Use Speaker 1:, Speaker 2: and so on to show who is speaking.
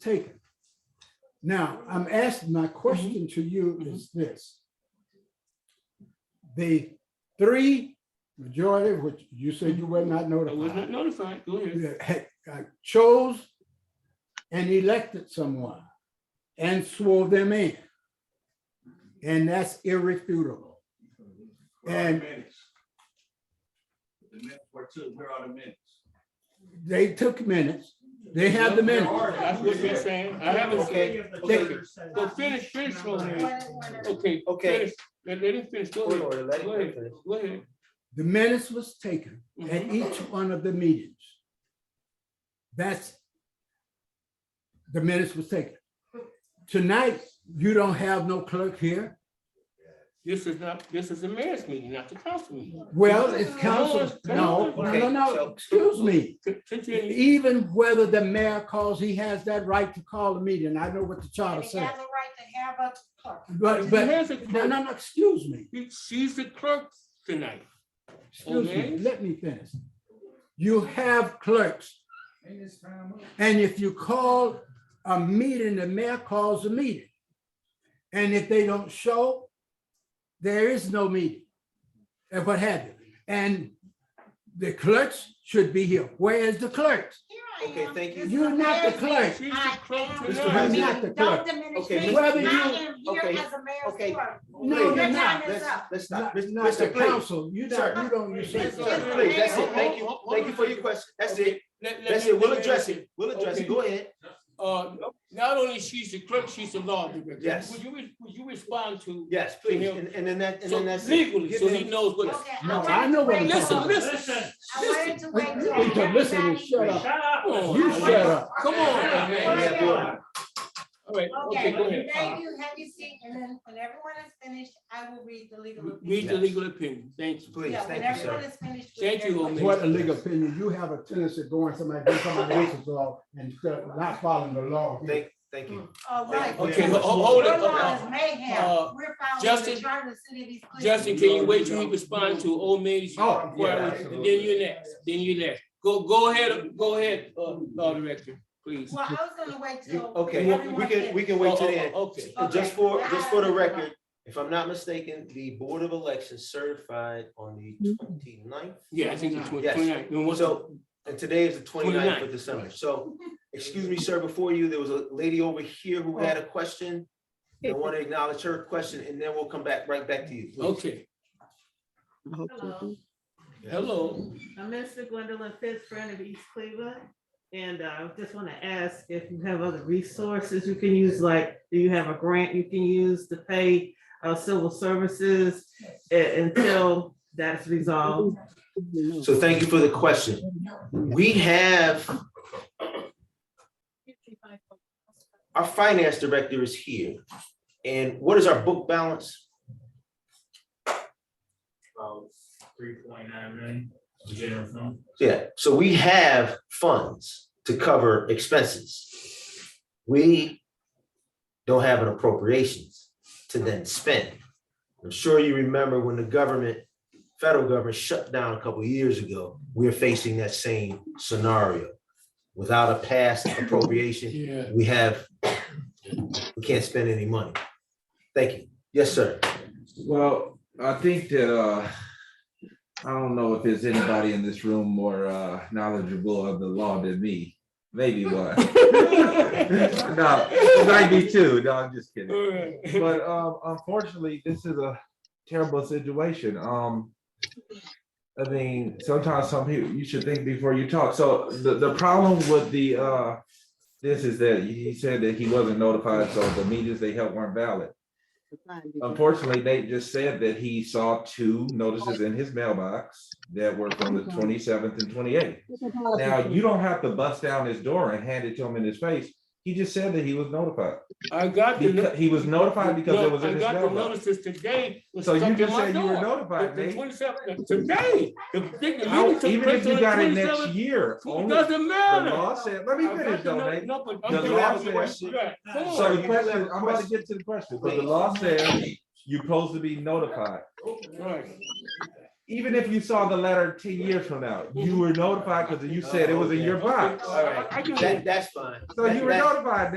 Speaker 1: taken. Now, I'm asking, my question to you
Speaker 2: Mhm.
Speaker 1: is this. The three majority, which you said you were not
Speaker 2: I was
Speaker 1: notified,
Speaker 2: not notified. Go ahead.
Speaker 1: that had- uh, chose and elected someone and swore them in. And that's irrefutable.
Speaker 3: Where are the
Speaker 1: And-
Speaker 3: minutes? The minutes were two, where are the minutes?
Speaker 1: They took minutes. They have the
Speaker 2: There
Speaker 1: minutes.
Speaker 2: are. That's what you're saying. I haven't said. Okay, so finish, finish, Roseanne. Okay,
Speaker 4: Okay.
Speaker 2: finish. Let, let him finish. Go
Speaker 4: Point of
Speaker 2: ahead.
Speaker 4: order, let
Speaker 2: Go
Speaker 4: him
Speaker 2: ahead.
Speaker 4: finish.
Speaker 2: Go ahead.
Speaker 1: The minutes was taken at
Speaker 2: Mhm.
Speaker 1: each one of the meetings. That's the minutes was taken. Tonight, you don't have no clerk here.
Speaker 2: This is not, this is the mayor's meeting, not the council meeting.
Speaker 1: Well, it's council. No, no, no, no, excuse me.
Speaker 2: Con- Continue.
Speaker 1: Even whether the mayor calls, he has that right to call a meeting. I know what the charter
Speaker 5: And he
Speaker 1: says.
Speaker 5: has a right to have a clerk.
Speaker 1: But, but,
Speaker 2: Mayor's a
Speaker 1: no,
Speaker 2: clerk.
Speaker 1: no, no, excuse me.
Speaker 2: She's the clerk tonight.
Speaker 1: Excuse me,
Speaker 2: Okay.
Speaker 1: let me finish. You have clerks. And if you call a meeting, the mayor calls a meeting. And if they don't show, there is no meeting. And what have you. And the clerks should be here. Where is the clerks?
Speaker 5: Here I am.
Speaker 4: Okay, thank you.
Speaker 5: This is
Speaker 1: You're not the clerk.
Speaker 5: mayor's
Speaker 2: She's the
Speaker 5: I
Speaker 2: clerk
Speaker 5: am.
Speaker 1: Mr.
Speaker 2: tonight.
Speaker 1: President. You're not the
Speaker 5: meeting. Don't
Speaker 1: clerk.
Speaker 5: diminish
Speaker 4: Okay,
Speaker 5: me. I
Speaker 1: whether
Speaker 5: am here
Speaker 4: okay,
Speaker 5: as
Speaker 4: okay.
Speaker 5: a mayor's clerk.
Speaker 1: No,
Speaker 5: Your
Speaker 1: you're
Speaker 5: time
Speaker 1: not.
Speaker 5: is up.
Speaker 4: Let's
Speaker 1: Not not
Speaker 4: stop.
Speaker 1: the
Speaker 4: Mr. Please,
Speaker 1: council. You
Speaker 4: Sir.
Speaker 1: don't, you don't, you say.
Speaker 5: Mr.
Speaker 4: Mr. Please, that's it. Thank you. Thank you for your question. That's it.
Speaker 2: Let- let
Speaker 4: That's
Speaker 2: me-
Speaker 4: it. We'll
Speaker 2: let me
Speaker 4: address
Speaker 2: answer.
Speaker 4: it. We'll address it. Go ahead.
Speaker 2: Uh, not only she's the clerk, she's the law director.
Speaker 4: Yes.
Speaker 2: Would you, re- would you respond to?
Speaker 4: Yes, please. And, and then that, and
Speaker 2: So
Speaker 4: then that's. it.
Speaker 2: legally,
Speaker 4: Give
Speaker 2: so
Speaker 4: him-
Speaker 2: he knows what.
Speaker 5: Okay, I
Speaker 1: No,
Speaker 5: wanted
Speaker 1: I know
Speaker 5: to
Speaker 1: what
Speaker 5: wait
Speaker 1: I'm
Speaker 5: till-
Speaker 2: Listen,
Speaker 1: talking
Speaker 2: listen.
Speaker 5: I wanted to wait till
Speaker 1: You can listen and
Speaker 5: everybody.
Speaker 1: shut up.
Speaker 2: Come on.
Speaker 1: You shut up.
Speaker 2: Come on, man. All right, okay, go
Speaker 5: Okay,
Speaker 2: ahead.
Speaker 5: thank you, have your seat, and then when everyone is finished, I will read the legal.
Speaker 2: Read
Speaker 5: opinion.
Speaker 2: the legal opinion. Thank you.
Speaker 4: Please,
Speaker 5: Yeah, when
Speaker 4: thank you,
Speaker 5: everyone
Speaker 4: sir.
Speaker 5: is finished. with
Speaker 2: Thank you,
Speaker 5: their-
Speaker 2: Omid.
Speaker 1: What a legal opinion. You have a tendency of going somebody, doing somebody else's law and uh, not following the law.
Speaker 4: Thank, thank you.
Speaker 2: Hmm.
Speaker 5: All right.
Speaker 2: Okay,
Speaker 4: ho-
Speaker 2: ho- hold it.
Speaker 5: Your laws may
Speaker 2: Uh,
Speaker 5: have, we're following
Speaker 2: Justin-
Speaker 5: the charter of the city of East Cleveland.
Speaker 2: Justin, can you wait till he responds to Old Mary's?
Speaker 1: Oh,
Speaker 4: yeah,
Speaker 2: inquiry? And Then you're next, then you're next. Go, go ahead, go ahead, uh, law director, please.
Speaker 5: Well, I was gonna wait
Speaker 4: You-
Speaker 5: till.
Speaker 4: Okay, we
Speaker 5: everyone
Speaker 4: can,
Speaker 5: gets-
Speaker 4: we can wait till
Speaker 2: Oh,
Speaker 4: the
Speaker 2: oh,
Speaker 4: end.
Speaker 2: oh, Okay.
Speaker 4: And Just
Speaker 5: Okay.
Speaker 4: for, just for the record, if I'm not mistaken, the Board of Elections certified on the 29th.
Speaker 2: Yeah, I think it's
Speaker 4: Yes.
Speaker 2: 29. And what's up?
Speaker 4: So, and today is the 29th of
Speaker 2: 29th,
Speaker 4: December,
Speaker 2: right.
Speaker 4: so, excuse me, sir, before you, there was a lady over here who had a question. I want to acknowledge her question, and then we'll come back, right back to you. please.
Speaker 2: Okay,
Speaker 6: Hello,
Speaker 2: hello.
Speaker 6: I'm Mr. Gwendolyn Pitts, friend of East Cleveland. And uh, I just want to ask if you have other resources you can use, like, do you have a grant you can use to pay uh, civil services a- until that's resolved?
Speaker 4: So thank you for the question. We have our finance director is here. And what is our book balance?
Speaker 3: Three point nine million, general fund.
Speaker 4: Yeah, so we have funds to cover expenses. We don't have an appropriations to then spend. I'm sure you remember when the government, federal government shut down a couple of years ago, we were facing that same scenario. Without a past appropriation,
Speaker 2: Yeah.
Speaker 4: we have, we can't spend any money. Thank you. Yes, sir.
Speaker 7: Well, I think that, uh, I don't know if there's anybody in this room more, uh, knowledgeable of the law than me. Maybe one. No, ninety-two. No, I'm just kidding.
Speaker 2: All right.
Speaker 7: But, um, unfortunately, this is a terrible situation. Um, I mean, sometimes some people, you should think before you talk. So the, the problem with the, uh, this is that he said that he wasn't notified, so the meetings they held weren't valid. Unfortunately, they just said that he saw two notices in his mailbox that were from the twenty-seventh and twenty-eighth. Now, you don't have to bust down his door and hand it to him in his face. He just said that he was notified.
Speaker 2: I got the. no-
Speaker 7: Because- He was notified because
Speaker 2: No,
Speaker 7: it was in
Speaker 2: I
Speaker 7: his
Speaker 2: got the
Speaker 7: mailbox.
Speaker 2: notices today. was
Speaker 7: So you
Speaker 2: stuck in
Speaker 7: just
Speaker 2: my
Speaker 7: said you were
Speaker 2: door.
Speaker 7: notified,
Speaker 2: The
Speaker 7: Nate.
Speaker 2: twenty-seventh, today, the thing, the
Speaker 7: How-
Speaker 2: meeting took
Speaker 7: Even if
Speaker 2: place on
Speaker 7: you
Speaker 2: the
Speaker 7: got it next
Speaker 2: twenty-seventh.
Speaker 7: year, only the
Speaker 2: Doesn't matter.
Speaker 7: law said, let me
Speaker 2: I got
Speaker 7: finish
Speaker 2: the
Speaker 7: though,
Speaker 2: no-
Speaker 7: Nate.
Speaker 2: no, but I'm
Speaker 7: The
Speaker 2: doing
Speaker 7: law
Speaker 2: all
Speaker 7: said-
Speaker 2: questions. Right. Come on.
Speaker 7: So
Speaker 4: you
Speaker 7: the
Speaker 4: have
Speaker 7: question,
Speaker 4: a
Speaker 7: I'm about to
Speaker 4: question.
Speaker 7: get to the question, but the law says you're supposed to be notified.
Speaker 2: Right.
Speaker 8: even if you saw the letter ten years from now, you were notified because you said it was in your box.
Speaker 4: All right,
Speaker 8: I- I can-
Speaker 4: that, that's fine.
Speaker 8: So you were
Speaker 4: That- that-
Speaker 8: notified,